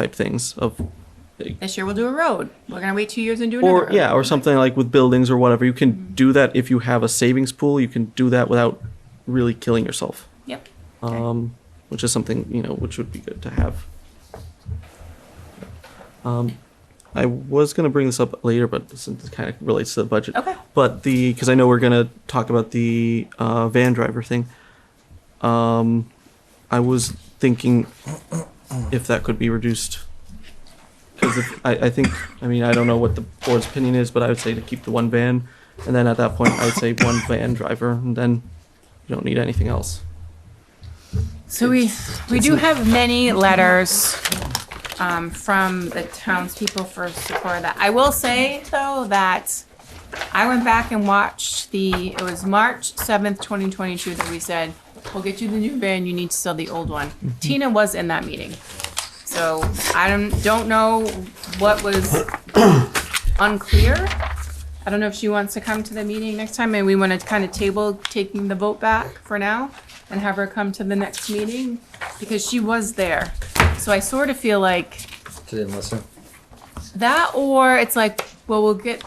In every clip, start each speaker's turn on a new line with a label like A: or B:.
A: type things of
B: This year we'll do a road. We're gonna wait two years and do another.
A: or
B: road.
A: yeah or something like with buildings or whatever you can do that if you have a savings pool you can do that without really killing yourself
B: Yep.
A: um, which is something you know which would be good to have. Um, I was going to bring this up later, but since it kind of relates to the budget.
B: Okay.
A: But the because I know we're going to talk about the uh, van driver thing. Um, I was thinking if that could be reduced. Because I, I think, I mean, I don't know what the board's opinion is, but I would say to keep the one van, and then at that point, I would say one van driver, and then you don't need anything else.
B: So we, we do have many letters um, from the townspeople for support of that. I will say, though, that I went back and watched the, it was March 7th, 2022, that we said, we'll get you the new van, you need to sell the old one.
A: Mm-hmm.
B: Tina was in that meeting. So I don't, don't know what was unclear. I don't know if she wants to come to the meeting next time, and we want to kind of table taking the vote back for now and have her come to the next meeting, because she was there. So I sort of feel like
C: She didn't listen.
B: that, or it's like, well, we'll get,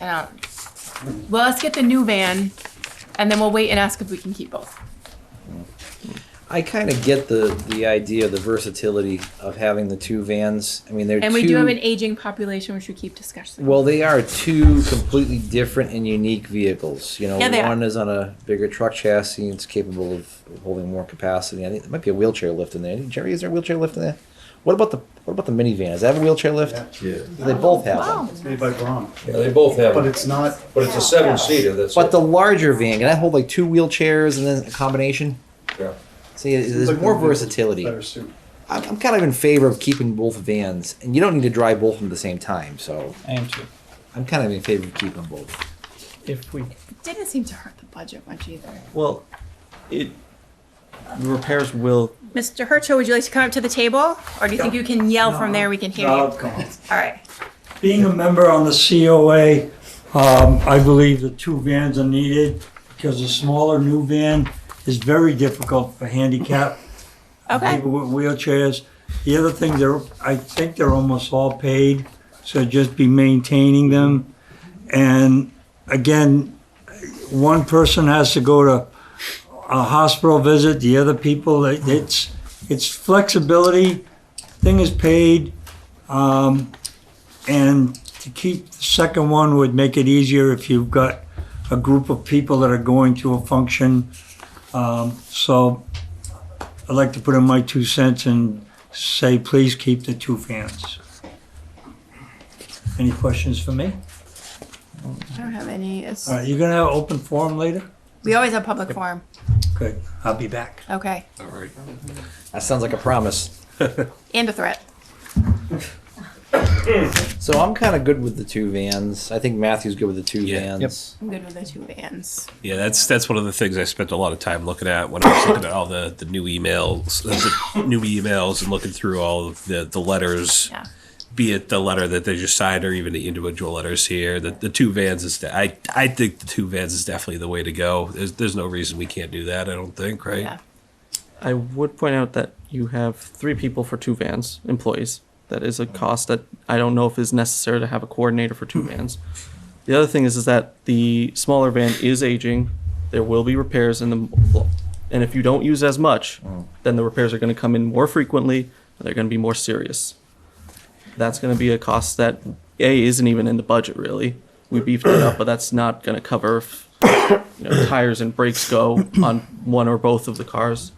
B: I don't, well, let's get the new van, and then we'll wait and ask if we can keep both.
C: I kind of get the the idea of the versatility of having the two vans. I mean, they're
B: And
C: two,
B: we do have an aging population, which we keep discussing.
C: well, they are two completely different and unique vehicles. You know,
B: Yeah, they are.
C: one is on a bigger truck chassis and it's capable of holding more capacity. I think there might be a wheelchair lift in there. Jerry, is there a wheelchair lift in there? What about the what about the minivan? Does that have a wheelchair lift?
D: Yeah.
C: They both have them.
B: Wow.
D: It's made by Braun,
E: they both have,
D: but
E: them,
D: it's not,
E: but it's a seven seater, that's
C: But
E: it.
C: the larger van can that hold like two wheelchairs and then a combination?
E: Yeah.
C: See, there's
D: like
C: more
D: the vehicle's
C: versatility.
D: better suit.
C: I'm, I'm kind of in favor of keeping both vans, and you don't need to drive both of them at the same time. So
F: I am too.
C: I'm kind of in favor of keeping both.
A: If we
B: It Didn't seem to hurt the budget much either.
A: Well, it the repairs will.
B: Mr. Hercho, would you like to come up to the table, or do you think you can yell from there, we can hear you?
G: Oh,
B: All
G: come on.
B: right.
G: Being a member on the COA, um, I believe the two vans are needed because a smaller new van is very difficult for handicap.
B: Okay.
G: People with wheelchairs. The other thing, they're, I think they're almost all paid, so just be maintaining them. And again, one person has to go to a hospital visit, the other people, it- it's, it's flexibility, thing is paid. Um, and to keep the second one would make it easier if you've got a group of people that are going to a function. Um, so I'd like to put in my two cents and say, please keep the two fans. Any questions for me?
B: I don't have any. It's,
G: All right, you're gonna have open forum later?
B: We always have public forum.
G: Good, I'll be back.
B: Okay.
C: That sounds like a promise.
B: And a threat.
C: So I'm kind of good with the two vans. I think Matthew's good with the two
H: Yeah.
C: vans.
B: I'm good with the two vans.
H: Yeah, that's that's one of the things I spent a lot of time looking at when I was looking at all the, the new emails, uh, the new emails, and looking through all of the the letters.
B: Yeah.
H: Be it the letter that they just signed, or even the individual letters here, the, the two vans is. De- I I think the two vans is definitely the way to go. There's there's no reason we can't do that. I don't think, right?
B: Yeah.
A: I would point out that you have three people for two vans, employees. That is a cost that I don't know if is necessary to have a coordinator for two vans. The other thing is, is that the smaller van is aging. There will be repairs in the, and if you don't use as much, then the repairs are going to come in more frequently. And they're going to be more serious. That's going to be a cost that a isn't even in the budget really. We beefed it up, but that's not going to cover if you know, tires and brakes go on one or both of the cars.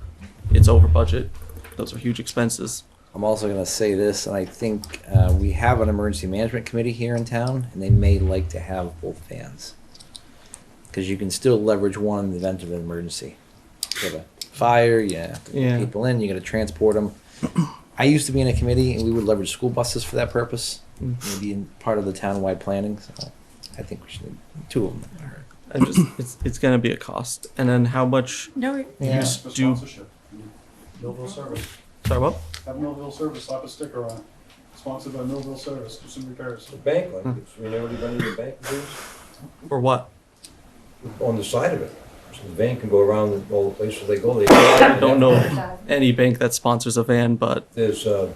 A: It's over budget. Those are huge expenses.
C: I'm also gonna say this, and I think uh, we have an emergency management committee here in town, and they may like to have both vans because you can still leverage one in the event of an emergency. You have a fire, you have to put
A: Yeah.
C: people in, you got to transport them. I used to be in a committee, and we would leverage school buses for that purpose, maybe in part of the town-wide planning. So I think we should need two of them.
A: And just it's it's gonna be a cost. And then how much
B: No,
C: Yeah.
A: use
D: For
A: do
D: sponsorship. Millville Service,
A: sorry what?
D: have Millville Service slap a sticker on it, sponsored by Millville Service, do some repairs.
E: The bank like this, I mean, everybody in the bank is
A: Or what?
E: on the side of it. So the van can go around all the places they go, they.
A: I don't know any bank that sponsors a van, but
E: There's, uh,